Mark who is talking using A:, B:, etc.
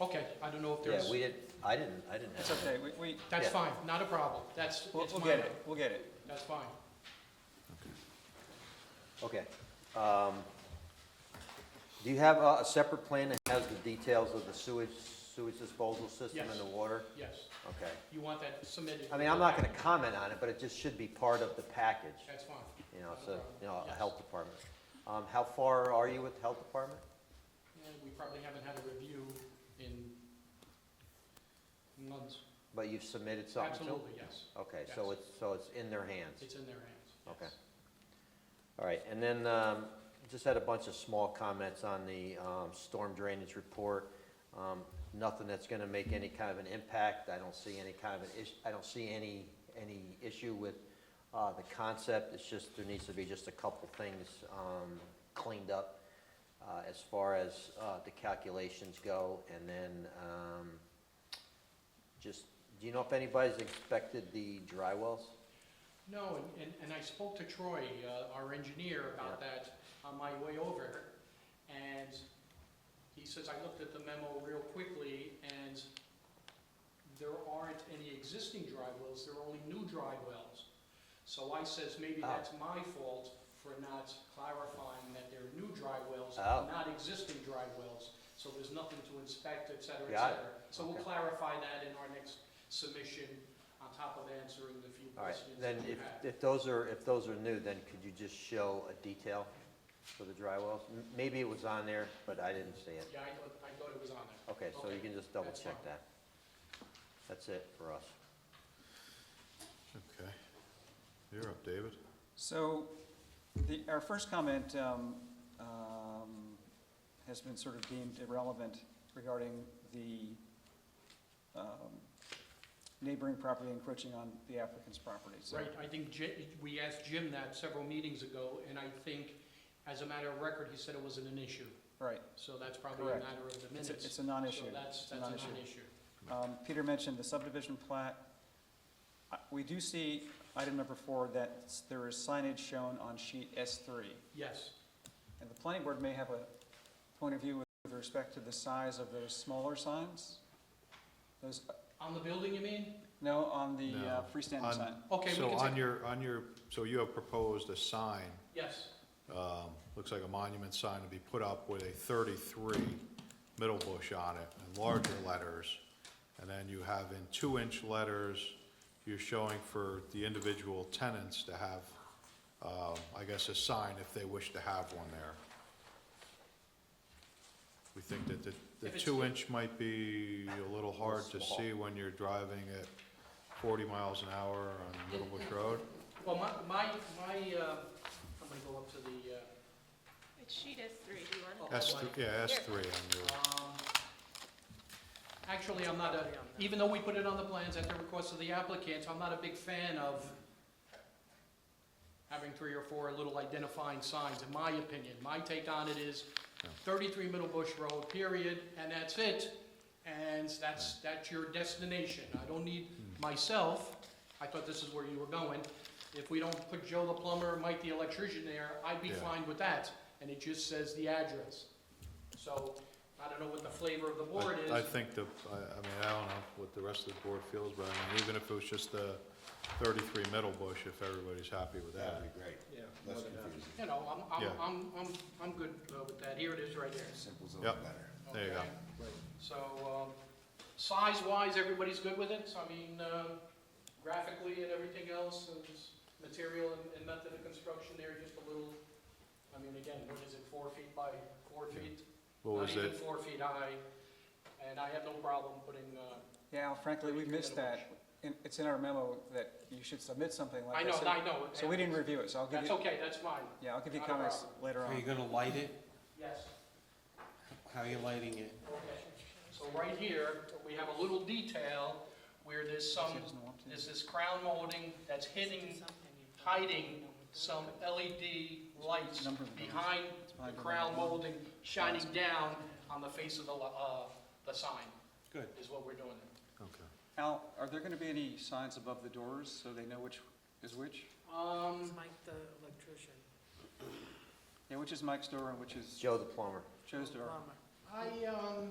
A: Okay, I don't know if
B: Yeah,
A: there's,
B: we did, I didn't, I didn't
C: It's
B: have that.
C: okay, we, we,
A: that's
B: yeah.
A: fine, not a problem, that's,
C: we'll,
A: it's
C: we'll
A: my
C: get
A: way.
C: it, we'll get it.
A: that's fine.
B: Okay. Um, Do you have a a separate plan that has the details of the sewage, sewage disposal system and the
A: Yes.
B: water?
A: Yes,
B: Okay.
A: you want that submitted?
B: I mean, I'm not gonna comment on it, but it just should be part of the package,
A: That's fine.
B: you know, so, you know, a
A: Yes.
B: health department. Um, how far are you with the health department?
A: And we probably haven't had a review in months.
B: But you've submitted something to them?
A: Absolutely, yes,
B: Okay, so
A: Yes.
B: it's, so it's in their hands?
A: it's in their hands. yes.
B: Okay. All right, and then, um, just had a bunch of small comments on the, um, storm drainage report. Um, nothing that's gonna make any kind of an impact, I don't see any kind of an issue, I don't see any, any issue with, uh, the concept, it's just, there needs to be just a couple things, um, cleaned up, uh, as far as, uh, the calculations go, and then, um, just, do you know if anybody's inspected the dry wells?
A: No, and- and, and I spoke to Troy, uh, our engineer, about that on my way over, and he says, I looked at the memo real quickly, and there aren't any existing dry wells, there are only new dry wells. So I says, maybe
B: Oh.
A: that's my fault for not clarifying that they're new dry wells,
B: Oh.
A: not existing dry wells, so there's nothing to inspect, et cetera, et
B: Got it.
A: cetera. So we'll
B: Okay.
A: clarify that in our next submission, on top of answering the few
B: All right,
A: questions
B: then
A: that you
B: if,
A: had.
B: if those are, if those are new, then could you just show a detail for the dry wells? M- Maybe it was on there, but I didn't see it.
A: Yeah, I thought, I thought it was on there.
B: Okay, so you
A: Okay,
B: can just double
A: that's
B: check
A: fine.
B: that. That's it for us.
D: Okay. You're up, David.
C: So, the, our first comment, um, um, has been sort of deemed irrelevant regarding the, um, neighboring property encroaching on the applicant's property, so.
A: Right, I think Ji- we asked Jim that several meetings ago, and I think, as a matter of record, he said it wasn't an issue.
C: Right,
A: So that's probably a
C: Correct.
A: matter of the
C: it's
A: minutes.
C: a, it's a non-issue.
A: So that's,
C: It's a
A: that's a
C: non-issue.
A: non-issue.
C: Um, Peter mentioned the subdivision plat. Uh, We do see, item number four, that s- there is signage shown on sheet S three.
A: Yes,
C: And the planning board may have a point of view with respect to the size of those smaller signs? Those,
A: on the building, you mean?
C: no, on the uh,
D: No,
C: freestanding
D: on-
C: sign?
A: Okay, we
D: So
A: can
D: on
A: take,
D: your, on your, so you have proposed a sign,
A: yes,
D: um, looks like a monument sign to be put up with a thirty-three middle bush on it and larger letters. And then you have in two-inch letters, you're showing for the individual tenants to have, um, I guess, a sign if they wish to have one there. We think that the, the
A: If it's-
D: two-inch might be a little hard to
B: Small.
D: see when you're driving at forty miles an hour on Middle Bush Road.
A: well, my, my, my, uh, I'm gonna go up to the, uh, oh,
E: It's sheet S three, do you want it?
D: S, th- yeah, S three on your.
A: Um, Actually, I'm not a, even though we put it on the plans at the request of the applicants, I'm not a big fan of having three or four little identifying signs, in my opinion. My take on it is thirty-three Middle Bush Road, period, and that's it. And that's, that's your destination. I don't need myself, I thought this is where you were going. If we don't put Joe the plumber, Mike the electrician there, I'd be
D: Yeah.
A: fine with that. And it just says the address. So I don't know what the flavor of the board
D: I- I
A: is.
D: think the, I, I mean, I don't know what the rest of the board feels, but I mean, even if it was just the thirty-three Middle Bush, if everybody's happy with that.
F: be great.
A: Yeah.
F: Less confusing.
A: You know, I'm, I'm,
D: Yeah.
A: I'm, I'm, I'm good uh, with that. Here it is right there.
F: Simple's
D: Yep.
F: better.
D: There you go.
A: Okay? So, um, size-wise, everybody's good with it? So I mean, um, graphically and everything else, and just material and- and method of construction there, just a little, I mean, again, what is it, four feet by four
D: Yeah.
A: feet?
D: What was
A: Not even
D: it?
A: four feet high, and I have no problem putting, uh,
C: Yeah, Al, frankly, we missed that. In- It's in our memo that you should submit something
A: I
C: like
A: know,
C: this.
A: I know. it
C: So we didn't
A: happens.
C: review it, so I'll give
A: That's
C: you,
A: okay, that's fine,
C: yeah, I'll give you
A: Not a
C: comments
A: problem.
C: later
G: Are you
C: on.
G: gonna light it?
A: yes.
G: How are you lighting it?
A: Okay, so right here, we have a little detail where there's some,
C: She doesn't want to.
A: there's this crown molding that's hitting, hiding some LED lights
C: Number of those.
A: behind
C: It's
A: the
C: behind the
A: crown
C: number.
A: molding, shining down on the face of the, li- uh, the sign,
G: Good.
A: is what we're doing there.
D: Okay.
C: Al, are there gonna be any signs above the doors so they know which is which?
A: Um,
H: Mike the electrician,
C: Yeah, which is Mike's door and which is
B: Joe the plumber.
C: Joe's door?
H: plumber.
A: I, um,